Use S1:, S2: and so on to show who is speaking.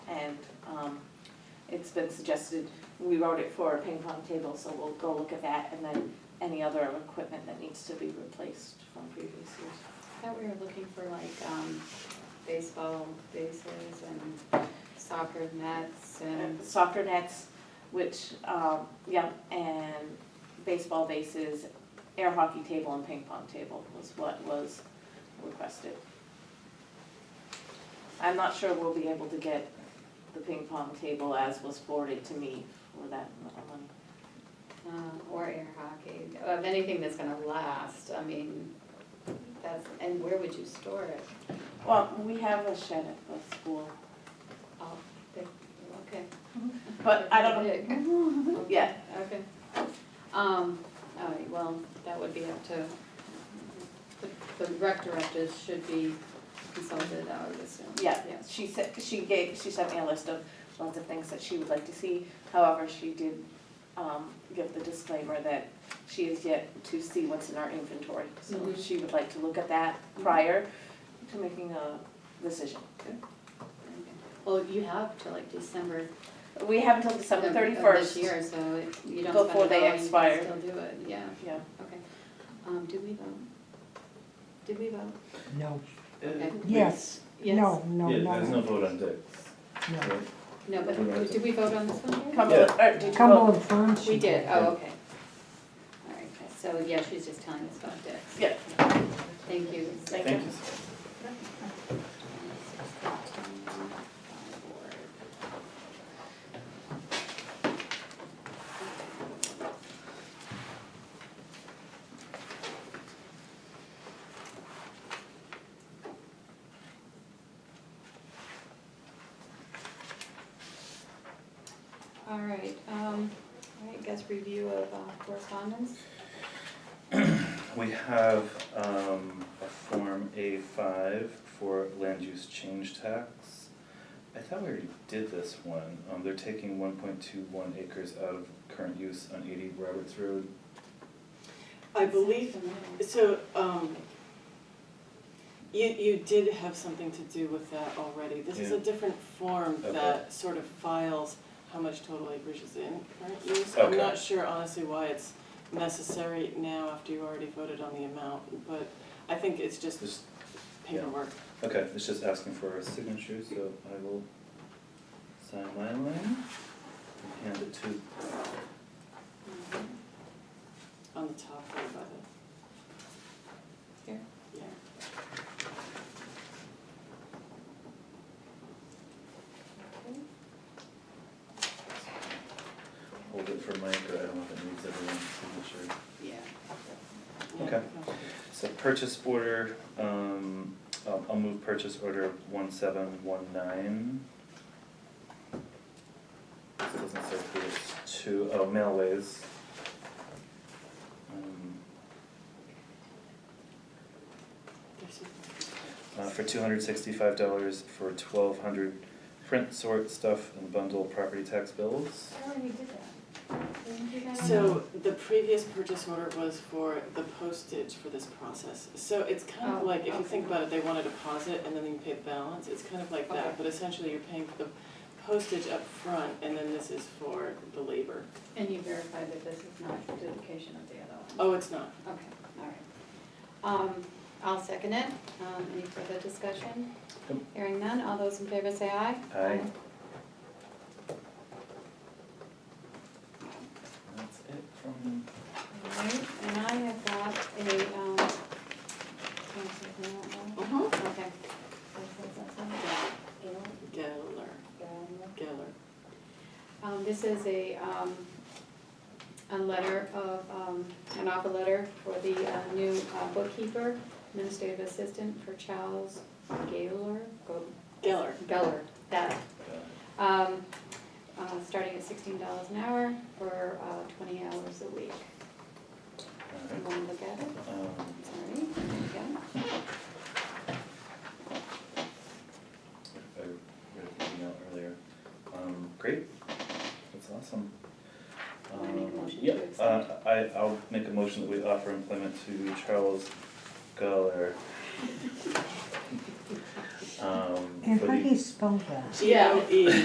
S1: um, it's been suggested, we wrote it for a ping pong table, so we'll go look at that and then any other equipment that needs to be replaced from previous years.
S2: I thought we were looking for like, um, baseball bases and soccer nets and,
S1: And Soccer nets, which, um, yeah, and baseball bases, air hockey table and ping pong table was what was requested. I'm not sure we'll be able to get the ping pong table as was forwarded to me for that one.
S2: um, or air hockey, of anything that's gonna last, I mean, that's, and where would you store it?
S1: Well, we have a shed at the school,
S2: Oh, they- okay.
S1: but I don't,
S2: Big.
S1: yeah,
S2: Okay. Um, all right, well, that would be up to, the- the rec directors should be consulted, I would assume.
S1: yeah,
S2: Yes.
S1: she said, she gave, she sent me a list of lots of things that she would like to see. However, she did, um, give the disclaimer that she is yet to see what's in our inventory. So
S2: Mhm.
S1: she would like to look at that
S2: Mm-hmm.
S1: prior to making a decision.
S2: Well, you have till like December.
S1: We have until December
S2: of-
S1: thirty-first.
S2: Of uh, this year, so if you don't
S1: Before
S2: spend
S1: they
S2: it all, you
S1: expire.
S2: can still do it, yeah,
S1: Yeah,
S2: okay. Um, did we vote? Did we vote?
S3: No,
S2: Okay.
S3: yes,
S2: Yes?
S3: no, no,
S4: Yeah,
S3: no,
S4: there's no
S3: no.
S4: vote on Dick.
S2: No, but who- did we vote on this one here?
S1: Cumberland, or did you vote?
S3: Cumberland Farms.
S2: We did,
S4: Yeah.
S2: oh, okay. All right, so yeah, she's just telling us about Dick.
S1: Yeah,
S2: Thank you.
S1: Thank
S4: Thank you.
S2: All right, um, all right, guess review of uh, correspondence.
S4: We have um, a Form A5 for land use change tax. I thought we already did this one. Um, They're taking 1.21 acres out of current use on 80 Roberts Road.
S5: I believe, so, um, you, you did have something to do with that already. This is a
S4: Yeah.
S5: different form
S4: Okay.
S5: that sort of files how much total acreage is in current use.
S4: Okay.
S5: I'm not sure honestly why it's necessary now after you already voted on the amount, but I think it's just
S4: Just-
S5: paperwork.
S4: Okay, it's just asking for a signature, so I will sign my line and hand it to
S5: On the top there by the.
S2: Here?
S5: Yeah.
S4: Hold it for Mike, or I don't know if it needs everyone's signature.
S2: Yeah.
S5: Yeah.
S4: Okay. So purchase order, um, I'll, I'll move purchase order one seven one nine. This doesn't say who it's to, oh, Mailways. Um,
S5: There's a-
S4: uh, for two hundred sixty-five dollars for twelve hundred print, sort, stuff, and bundle property tax bills.
S2: I already did that. Didn't you guys?
S5: So the previous purchase order was for the postage for this process. So it's kind of
S2: Oh,
S5: like, if you
S2: okay.
S5: think about it, they want a deposit and then you pay the balance. It's kind of like
S2: Okay.
S5: that, but essentially you're paying for the postage up front, and then this is for the labor.
S2: And you verified that this is not a duplication of the other one?
S5: Oh, it's not.
S2: Okay, all right. Um, I'll second it. Um, any further discussion?
S4: Yep.
S2: Hearing none, all those in favor say aye.
S4: Aye. That's it from,
S2: All right, and I have got a, um, can I take that one?
S5: Uh-huh.
S2: Okay.
S5: Geller, Geller.
S2: Um, this is a, um, a letter of, um, an offer letter for the uh, new uh, bookkeeper, administrative assistant for Charles Gaylor, Go-
S5: Geller.
S2: Geller, that,
S4: uh,
S2: um, uh, starting at sixteen dollars an hour for, uh, twenty hours a week. You
S4: alright,
S2: wanna look at it?
S4: um,
S2: Sorry, there you
S4: I read the email earlier. Um, great, that's awesome.
S2: Wanna make a
S4: Um,
S2: motion to
S4: yeah,
S2: accept?
S4: Uh, I, I'll make a motion that we offer employment to Charles Geller. Um,
S3: And
S4: for
S3: how
S4: Um, the-
S3: do you spell that?
S5: G L E